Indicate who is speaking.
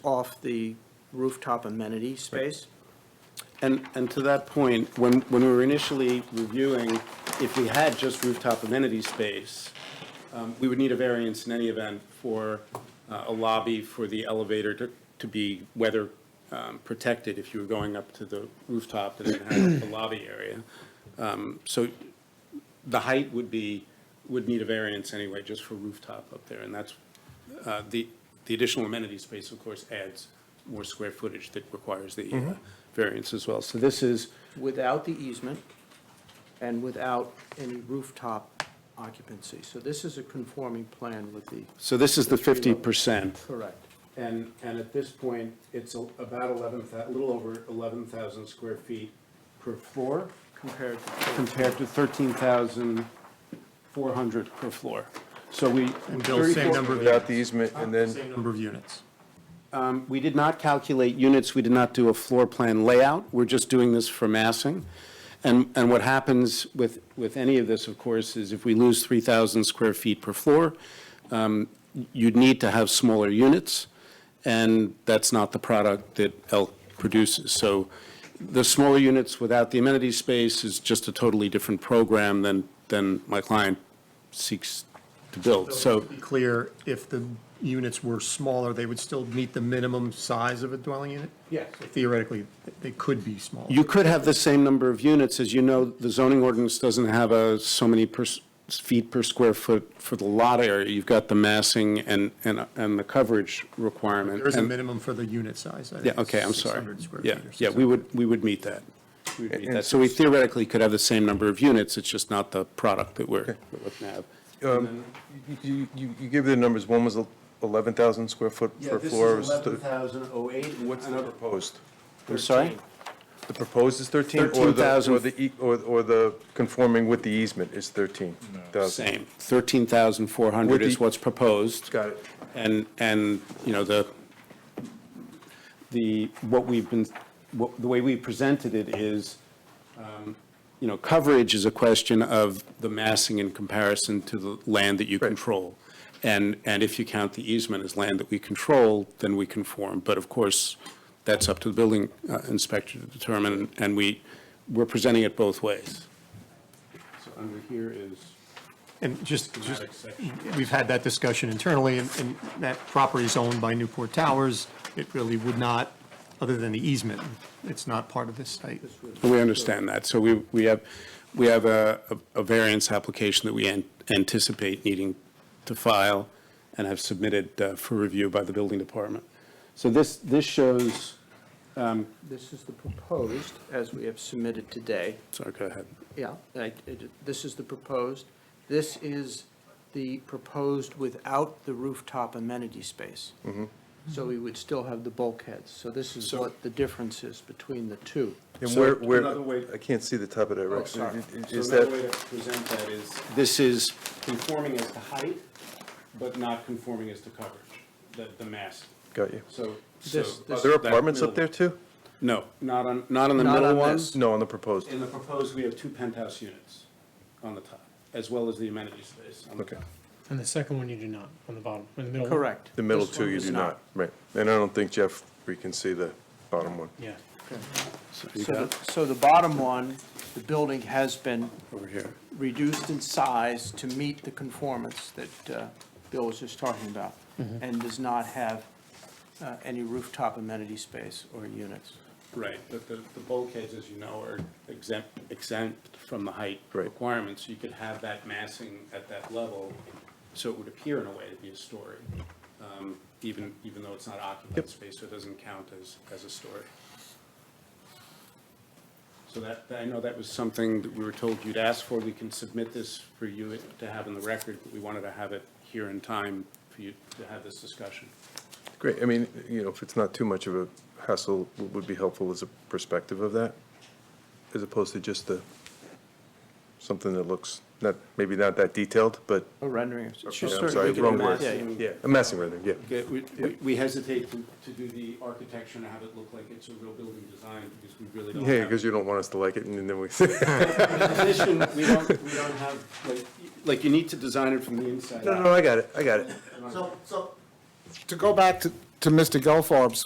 Speaker 1: off the rooftop amenity space.
Speaker 2: And, and to that point, when, when we were initially reviewing, if we had just rooftop amenity space, um, we would need a variance in any event for uh, a lobby for the elevator to, to be weather um, protected if you were going up to the rooftop and then had a lobby area. Um, So the height would be, would need a variance anyway, just for rooftop up there. And that's, uh, the, the additional amenity space, of course, adds more square footage that requires the uh, variance as well. So this is,
Speaker 1: without the easement and without any rooftop occupancy. So this is a conforming plan with the,
Speaker 2: so this is the 50%.
Speaker 1: correct.
Speaker 2: And, and at this point, it's a- about 11, a little over 11,000 square feet per floor
Speaker 1: Compared to,
Speaker 2: compared to 13,400 per floor. So we.
Speaker 3: Bill, same
Speaker 2: 34
Speaker 3: number of
Speaker 4: Without
Speaker 3: units.
Speaker 4: the easement, and then,
Speaker 3: Same number of units.
Speaker 2: Um, We did not calculate units, we did not do a floor plan layout, we're just doing this for massing. And, and what happens with, with any of this, of course, is if we lose 3,000 square feet per floor, um, you'd need to have smaller units, and that's not the product that Elk produces. So the smaller units without the amenity space is just a totally different program than, than my client seeks to build. So,
Speaker 3: To be clear, if the units were smaller, they would still meet the minimum size of a dwelling unit?
Speaker 1: Yes.
Speaker 3: Theoretically, they could be smaller.
Speaker 2: You could have the same number of units, as you know, the zoning ordinance doesn't have a, so many per, s- feet per square foot for the lot area. You've got the massing and, and, and the coverage requirement.
Speaker 3: There is a
Speaker 2: And-
Speaker 3: minimum for the unit size. I think
Speaker 2: Yeah, okay, I'm
Speaker 3: it's
Speaker 2: sorry.
Speaker 3: 600 square
Speaker 2: Yeah,
Speaker 3: feet or
Speaker 2: yeah, we
Speaker 3: 600.
Speaker 2: would, we would meet that. We would meet
Speaker 4: And
Speaker 2: that. So we theoretically could have the same number of units, it's just not the product that we're we're looking to have.
Speaker 4: um, you, you, you give the numbers, one was eleven thousand square foot per floor. is the-
Speaker 2: thousand oh eight.
Speaker 4: What's the proposed?
Speaker 2: I'm sorry?
Speaker 4: The proposed is thirteen, or the,
Speaker 2: 13,000.
Speaker 4: or the, e- or, or the conforming with the easement is thirteen thousand?
Speaker 2: Same, thirteen thousand four hundred
Speaker 4: With
Speaker 2: is
Speaker 4: the-
Speaker 2: what's proposed.
Speaker 4: Got it.
Speaker 2: And, and, you know, the, the, what we've been, what, the way we presented it is, um, you know, coverage is a question of the massing in comparison to the land that you control. And, and if you count the easement as land that we control, then we conform. But of course, that's up to the building uh, inspector to determine, and we, we're presenting it both ways. So under here is.
Speaker 3: And just, just,
Speaker 2: Schematic section.
Speaker 3: we've had that discussion internally, and, and that property is owned by Newport Towers. It really would not, other than the easement, it's not part of this site.
Speaker 2: We understand that. So we, we have, we have a, a- a variance application that we an- anticipate needing to file and have submitted uh, for review by the building department. So this, this shows,
Speaker 1: This is the proposed, as we have submitted today.
Speaker 2: sorry, go ahead.
Speaker 1: Yeah, I- it- this is the proposed. This is the proposed without the rooftop amenity space. So we would still have the bulkheads. Mm-hmm. So this is
Speaker 2: So-
Speaker 1: what the difference is between the two.
Speaker 4: And
Speaker 2: So
Speaker 4: where,
Speaker 2: another way-
Speaker 4: where, I can't see the top of that, Rex.
Speaker 1: sorry.
Speaker 4: Is that,
Speaker 2: way to present that is. This is conforming as to height, but not conforming as to coverage, the, the mass.
Speaker 4: got you.
Speaker 2: So.
Speaker 1: This-
Speaker 2: so-
Speaker 1: this-
Speaker 4: Are there apartments up there too?
Speaker 2: No, not on, not on the
Speaker 1: Not
Speaker 2: middle
Speaker 1: on
Speaker 2: one.
Speaker 1: this.
Speaker 4: No, on the proposed.
Speaker 2: In the proposed, we have two penthouse units on the top, as well as the amenity space on the
Speaker 4: Okay.
Speaker 2: top.
Speaker 5: And the second one you do not, on the bottom, in the middle. one.
Speaker 1: Correct.
Speaker 4: The middle
Speaker 1: This
Speaker 4: two
Speaker 1: one
Speaker 4: you
Speaker 1: is
Speaker 4: do not, right. And I don't think Jeff, we can see the bottom one.
Speaker 5: Yeah.
Speaker 2: You
Speaker 1: So
Speaker 2: got
Speaker 1: the, so the bottom one, the building has been
Speaker 2: over here.
Speaker 1: reduced in size to meet the conformance that uh, Bill was just talking about, and does not have uh, any rooftop amenity space or units.
Speaker 2: Right, but the, the bulkheads, as you know, are exempt, exempt from the height
Speaker 4: Right.
Speaker 2: requirements. You could have that massing at that level, so it would appear in a way to be a story, um, even, even though it's not occupied space, so it doesn't count as, as a story. So that, that- I know that was something that we were told you'd ask for. We can submit this for you to have in the record, but we wanted to have it here in time for you to have this discussion.
Speaker 4: Great, I mean, you know, if it's not too much of a hassle, what would be helpful as a perspective of that, as opposed to just the, something that looks not, maybe not that detailed, but,
Speaker 1: Or rendering, it's
Speaker 4: yeah,
Speaker 1: just
Speaker 4: I'm
Speaker 1: certainly.
Speaker 4: sorry,
Speaker 2: we could
Speaker 4: wrong word.
Speaker 2: imagine-
Speaker 4: Yeah, a messing with it, yeah.
Speaker 2: Yeah, we- we we hesitate to to do the architecture and have it look like it's a real building design because we really don't have.
Speaker 4: Yeah, because you don't want us to like it, and then we,
Speaker 2: In addition, we don't, we don't have, like, like you need to design it from the inside
Speaker 4: no,
Speaker 2: out.
Speaker 4: no, I got it, I got it.
Speaker 6: So, so, to go back to to Mr. Gelfarb's